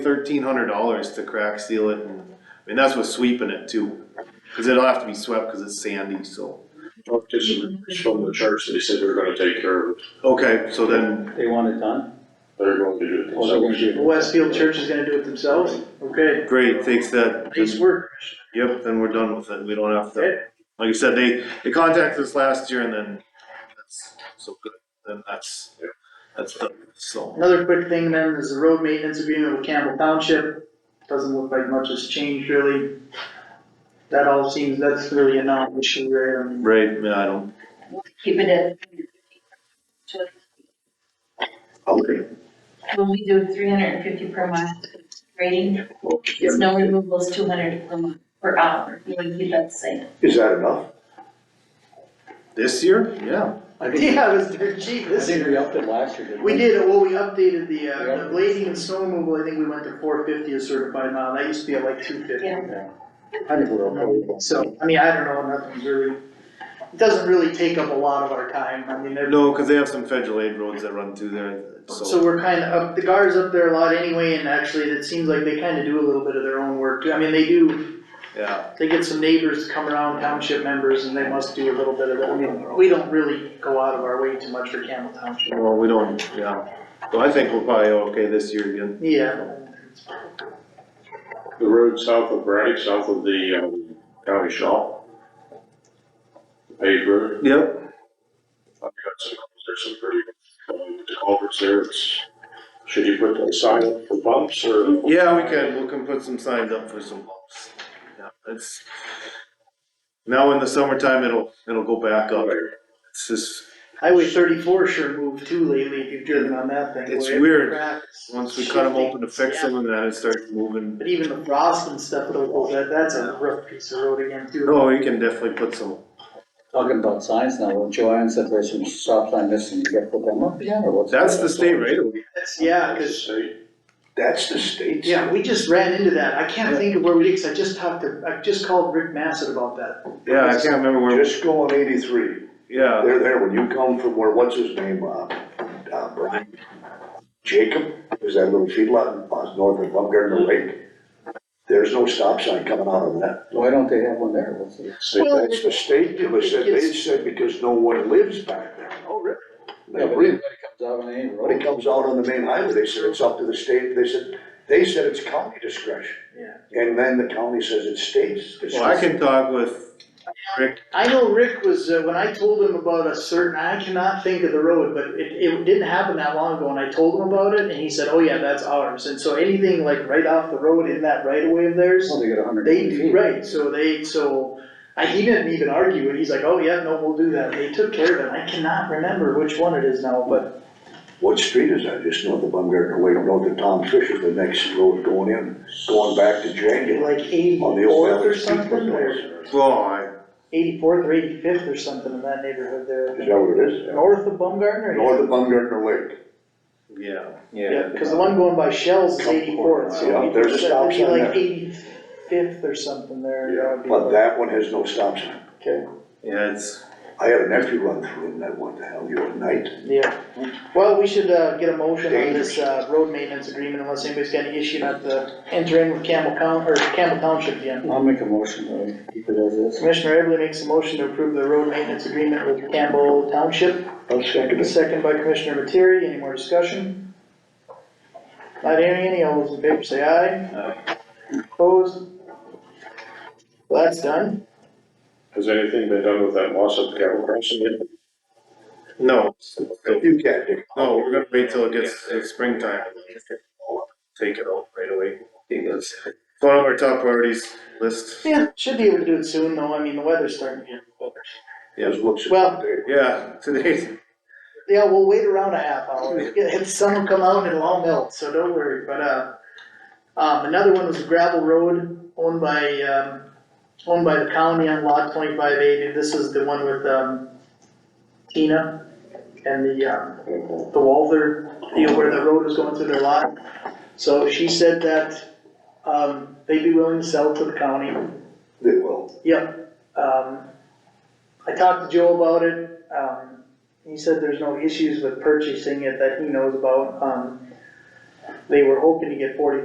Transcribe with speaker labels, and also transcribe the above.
Speaker 1: thirteen hundred dollars to crack seal it and, I mean, that's with sweeping it too. Cause it'll have to be swept, cause it's sandy, so.
Speaker 2: Well, Just from the church, they said they're gonna take care of it,
Speaker 1: Okay, so then,
Speaker 3: They want it done?
Speaker 2: they're going to do it.
Speaker 3: Well, they're gonna do it.
Speaker 4: The Westfield Church is gonna do it themselves? Okay,
Speaker 1: great, takes that,
Speaker 4: nice work.
Speaker 1: yep, then we're done with it, we don't have to,
Speaker 4: Okay.
Speaker 1: like I said, they, they contacted us last year and then, that's so good, then that's, that's done, so.
Speaker 4: Another quick thing then is the road maintenance agreement with Campbell Township. Doesn't look like much has changed really. That all seems, that's really a non-issue, right? I mean,
Speaker 1: Right, yeah, I don't,
Speaker 5: keep it at. 350. When we do three hundred and fifty per month rating, there's no removals, two hundred per month, per hour, you would keep that the same.
Speaker 6: Is that enough?
Speaker 1: this year, yeah,
Speaker 3: I think,
Speaker 4: Yeah, it was dirt cheap
Speaker 3: I
Speaker 4: this
Speaker 3: think we
Speaker 4: year.
Speaker 3: upped it last year, didn't we?
Speaker 4: We did, it. well, we updated the, uh,
Speaker 3: Yeah.
Speaker 4: the blazing and snow removal, I think we went to four fifty a certified mile, that used to be at like two fifty.
Speaker 5: Yeah.
Speaker 3: I think we're okay. with that.
Speaker 4: So, I mean, I don't know, nothing's really, it doesn't really take up a lot of our time, I mean, every-
Speaker 1: no, cause they have some federal aid roads that run through there,
Speaker 4: So
Speaker 1: so.
Speaker 4: we're kind of up, the guard's up there a lot anyway, and actually, it seems like they kind of do a little bit of their own work, too. I mean, they do,
Speaker 1: Yeah,
Speaker 4: they get some neighbors to come around, township members, and they must do a little bit of that. We don't really go out of our way too much for Campbell Township.
Speaker 1: well, we don't, yeah, so I think we're probably okay this year again.
Speaker 4: Yeah,
Speaker 2: The road south of Braddock, south of the, um, county shop. Paved road,
Speaker 1: Yep,
Speaker 2: I've got some, there's some pretty, um, the culverts there, it's, should you put a sign up for bumps or?
Speaker 1: Yeah, we can, we can put some signs up for some bumps. Yeah, it's, now in the summertime, it'll, it'll go back up. It's just,
Speaker 4: Highway thirty-four sure moved too lately, if you've driven on that thing.
Speaker 1: It's
Speaker 4: boy, every
Speaker 1: weird.
Speaker 4: crack is
Speaker 1: once we cut them
Speaker 4: shifting.
Speaker 1: open to fix them and then it starts moving.
Speaker 4: But even the frost and stuff, though, that, that's a rough piece of road again, too.
Speaker 1: No, Oh, we can definitely put some,
Speaker 3: Talking about signs now, well, Joanne said there's some stop sign missing, you gotta put them up again, or what's?
Speaker 1: that's the state right away.
Speaker 4: That's, yeah, cause
Speaker 2: It's a-
Speaker 6: That's the state's.
Speaker 4: Yeah, we just ran into that, I can't think of where we did, cause I just talked to, I just called Rick Massett about that.
Speaker 1: Yeah, I can't remember where,
Speaker 6: Just go on eighty-three.
Speaker 1: yeah,
Speaker 6: They're there when you come from where, what's his name, uh, uh, Brian? Jacob, is that little feedlot on north of Baumgartner Lake? There's no stop sign coming out of that.
Speaker 3: Why don't they have one there? What's the?
Speaker 2: it's a-
Speaker 6: That's the state, it was said, they
Speaker 4: It's-
Speaker 6: said because no one lives back there. Oh, really?
Speaker 3: Yeah, but
Speaker 6: They,
Speaker 3: everybody comes out on any
Speaker 6: when it
Speaker 3: road.
Speaker 6: comes out on the main highway, they said it's up to the state, they said, they said it's county discretion.
Speaker 4: Yeah.
Speaker 6: And then the county says it's state's
Speaker 1: well, I
Speaker 6: discretion.
Speaker 1: can talk with,
Speaker 4: I know Rick was, uh, when I told him about a certain, I cannot think of the road, but it, it didn't happen that long ago, and I told him about it, and he said, oh yeah, that's ours, and so anything like right off the road in that right of way of theirs,
Speaker 3: Well, Oh, they get a hundred
Speaker 4: they,
Speaker 3: and fifty
Speaker 4: do
Speaker 3: feet.
Speaker 4: right, so they, so, I, he didn't even argue, and he's like, oh yeah, no, we'll do that, they took care of it, I cannot remember which one it is now, but
Speaker 6: What street is that? Just north of Baumgartner Way, north of Tom Fisher's, the next road going in, going back to January.
Speaker 4: like
Speaker 6: On the old
Speaker 4: eighty-fourth
Speaker 6: Valley
Speaker 4: or
Speaker 6: Street.
Speaker 4: something, or?
Speaker 1: well, I,
Speaker 4: eighty-fourth or eighty-fifth or something in that neighborhood
Speaker 6: Is
Speaker 4: there.
Speaker 6: that what it is?
Speaker 4: North of Baumgartner?
Speaker 6: North of Baumgartner Lake.
Speaker 1: yeah,
Speaker 4: Yeah, cause the one going by Shell's is
Speaker 6: Couple
Speaker 4: eighty-fourth, so.
Speaker 6: miles. Yeah, there's a
Speaker 4: that'd
Speaker 6: stop
Speaker 4: be
Speaker 6: sign
Speaker 4: Like eighty-fifth or something there. that would be
Speaker 6: But
Speaker 4: like-
Speaker 6: that one has no stop sign.
Speaker 3: Okay.
Speaker 1: yeah, it's,
Speaker 6: I had a nephew run through it and that went to hell, you know, at night.
Speaker 4: Yeah, well, we should, uh, get a motion on this, uh, road maintenance agreement unless anybody's got any issue not to enter in with Campbell County, or Campbell Township again.
Speaker 3: I'll make a motion, to keep it as is.
Speaker 4: Commissioner Everly makes a motion to approve the road maintenance agreement with Campbell Township.
Speaker 6: I'll second it.
Speaker 4: Second by Commissioner Materi, any more discussion? Not hearing any, all those in favor say aye. Opposed? Well, that's done.
Speaker 2: Has anything been done with that loss of cattle crossing yet?
Speaker 1: no. so-
Speaker 6: You can't dig.
Speaker 1: No, we're gonna wait till it gets, it's springtime. Take it out right away, because it's one of our top priorities list,
Speaker 4: Yeah, should be able to do it soon though, I mean, the weather's starting to get colder.
Speaker 6: Just looks. at
Speaker 4: Well-
Speaker 6: it.
Speaker 1: yeah, today's,
Speaker 4: Yeah, we'll wait around a half hour, Yeah, the sun will come out and it'll all melt, so don't worry, but, uh, um, another one was a gravel road owned by, um, owned by the county on lot twenty-five eighty, this is the one with, um, Tina and the, um, the Walther, you know, where the road was going through their lot. So she said that, um, they'd be willing to sell to the county.
Speaker 6: They will.
Speaker 4: Yep. Um, I talked to Joe about it, um, he said there's no issues with purchasing it that he knows about, um, they were hoping to get forty